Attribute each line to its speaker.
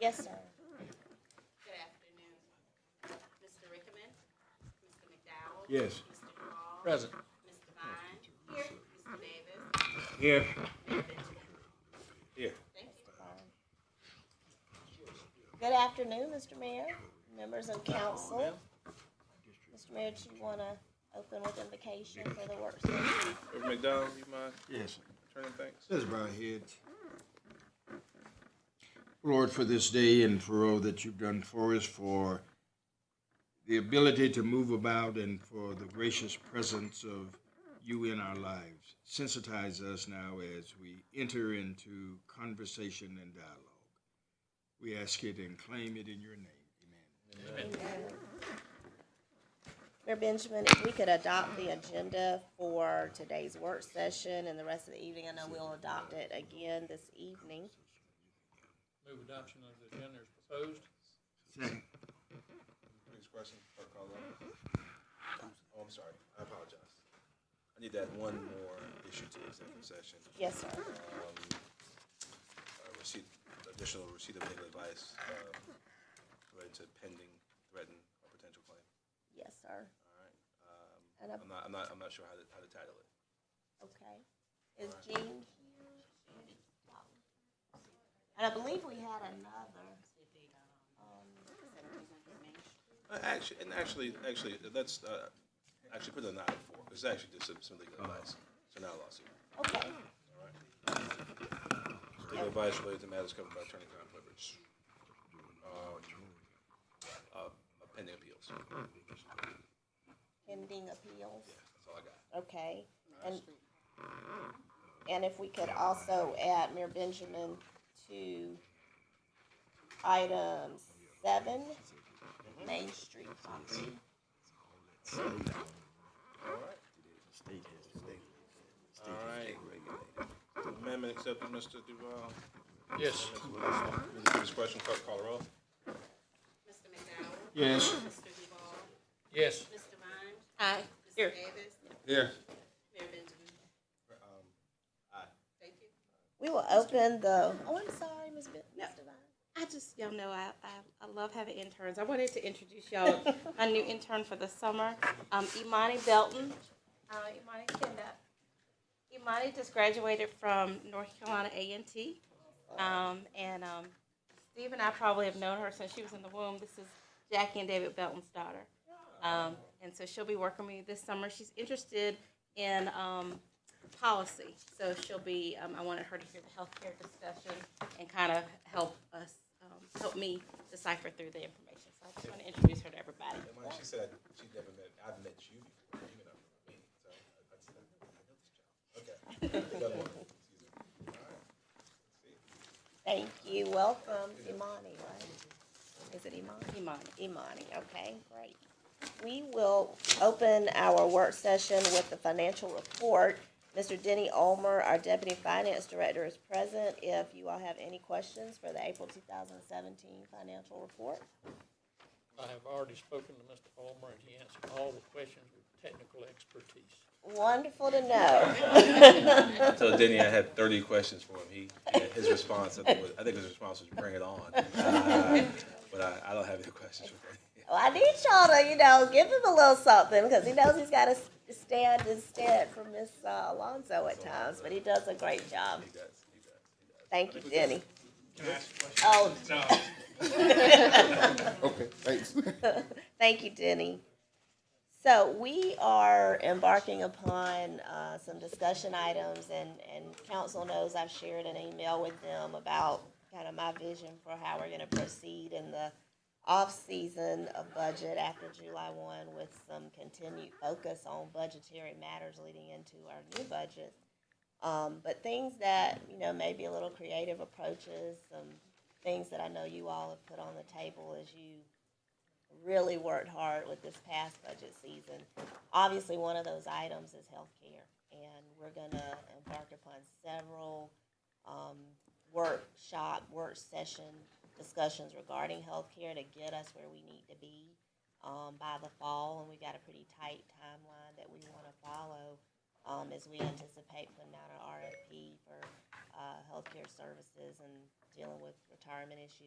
Speaker 1: Yes, sir.
Speaker 2: Good afternoon. Mr. Rickman? Mr. McDowell?
Speaker 3: Yes.
Speaker 2: Mr. Hall?
Speaker 4: Present.
Speaker 2: Ms. Devine? Here. Mr. Davis?
Speaker 3: Here.
Speaker 2: Mayor Benjamin?
Speaker 3: Here.
Speaker 2: Thank you.
Speaker 1: Good afternoon, Mr. Mayor, members of council. Mr. Mayor, do you want to open with invocation for the work session?
Speaker 5: Reverend McDowell, you mind
Speaker 3: Yes.
Speaker 5: turning thanks?
Speaker 3: Let's bow our heads. Lord, for this day and for all that you've done for us, for the ability to move about and for the gracious presence of you in our lives. Sensitize us now as we enter into conversation and dialogue. We ask it and claim it in your name. Amen.
Speaker 1: Mayor Benjamin, if we could adopt the agenda for today's work session and the rest of the evening, I know we'll adopt it again this evening.
Speaker 4: Move adoption of the agenda as proposed.
Speaker 3: Second.
Speaker 5: Next question, clerk call Oh, I'm sorry, I apologize. I need that one more issue to executive session.
Speaker 1: Yes, sir.
Speaker 5: Uh, Receipt, additional receipt of legal advice um, related to pending, threatened, or potential claim. Um,
Speaker 1: Yes, sir. And
Speaker 5: I'm not, I'm not, I'm not sure how to, how to title it.
Speaker 1: I- okay. Is Jean here? And I believe we had another. Um,
Speaker 5: Uh, Actually, and actually, actually, let's, uh, actually put it in item four. It's actually just some- some legal advice, so not a lawsuit.
Speaker 1: Okay,
Speaker 5: Legal advice related to matters covered by attorney-client privilege. Um, uh, Pending appeals. That's
Speaker 1: pending appeals.
Speaker 5: all I got.
Speaker 1: Okay, and, and if we could also add Mayor Benjamin to item seven, Main Street property.
Speaker 5: All right. Amendment accepted, Mr. Duval.
Speaker 4: Yes.
Speaker 5: This question, clerk call the roll.
Speaker 2: Mr. McDowell?
Speaker 3: Yes.
Speaker 2: Mr. Duval?
Speaker 4: Yes.
Speaker 2: Ms. Devine?
Speaker 1: Aye.
Speaker 2: Mr. Davis?
Speaker 5: Here.
Speaker 2: Mayor Benjamin?
Speaker 5: Um, aye.
Speaker 2: Thank you.
Speaker 1: We will open the, oh, I'm sorry, Ms. Ben- Ms.
Speaker 6: No.
Speaker 1: Devine.
Speaker 6: I just, y'all know, I, I, I love having interns. I wanted to introduce y'all my new intern for the summer, um, Imani Belton. Uh, Imani, stand up. Imani just graduated from North Carolina A and T, um, and um, Steve and I probably have known her since she was in the womb. This is Jackie and David Belton's daughter, um, and so she'll be working with me this summer. She's interested in um, policy, so she'll be. Um, I wanted her to hear the healthcare discussion and kind of help us, um, help me decipher through the information. So I just want to introduce her to everybody.
Speaker 5: And when she said she never met, I've met you before, you know, me, so I, I said, I know, I know this job. Okay. Another one. Excuse me.
Speaker 1: Thank you, welcome, Imani, right? Is it Imani?
Speaker 6: Imani.
Speaker 1: Imani, okay, great. We will open our work session with the financial report. Mr. Denny Olmer, our Deputy Finance Director, is present. If you all have any questions for the April 2017 financial report?
Speaker 4: I have already spoken to Mr. Palmer, and he answered all the questions with technical expertise.
Speaker 1: Wonderful to know.
Speaker 5: I told Denny I had thirty questions for him. He, his response, I think, was, I think his response was bring it on. Uh, But I, I don't have any questions for Denny.
Speaker 1: Well, Oh, I need y'all to, you know, give him a little something because he knows he's got to stand instead for Miss uh, Alonso at times, but he does a great job.
Speaker 5: He does, he does, he does.
Speaker 1: Thank you, Denny.
Speaker 7: Can I ask a question?
Speaker 1: Oh,
Speaker 7: No. Oh. Okay, thanks.
Speaker 1: Thank you, Denny. So we are embarking upon uh, some discussion items, and, and council knows I've shared an email with them about kind of my vision for how we're going to proceed in the off-season of budget after July 1 with some continued focus on budgetary matters leading into our new budget. Um, but things that, you know, maybe a little creative approaches, some things that I know you all have put on the table as you really worked hard with this past budget season. Obviously, one of those items is healthcare, and we're gonna embark upon several um, workshop, work session discussions regarding healthcare to get us where we need to be um, by the fall, and we got a pretty tight timeline that we want to follow um, as we anticipate putting out an RFP for uh, healthcare services and dealing with retirement issues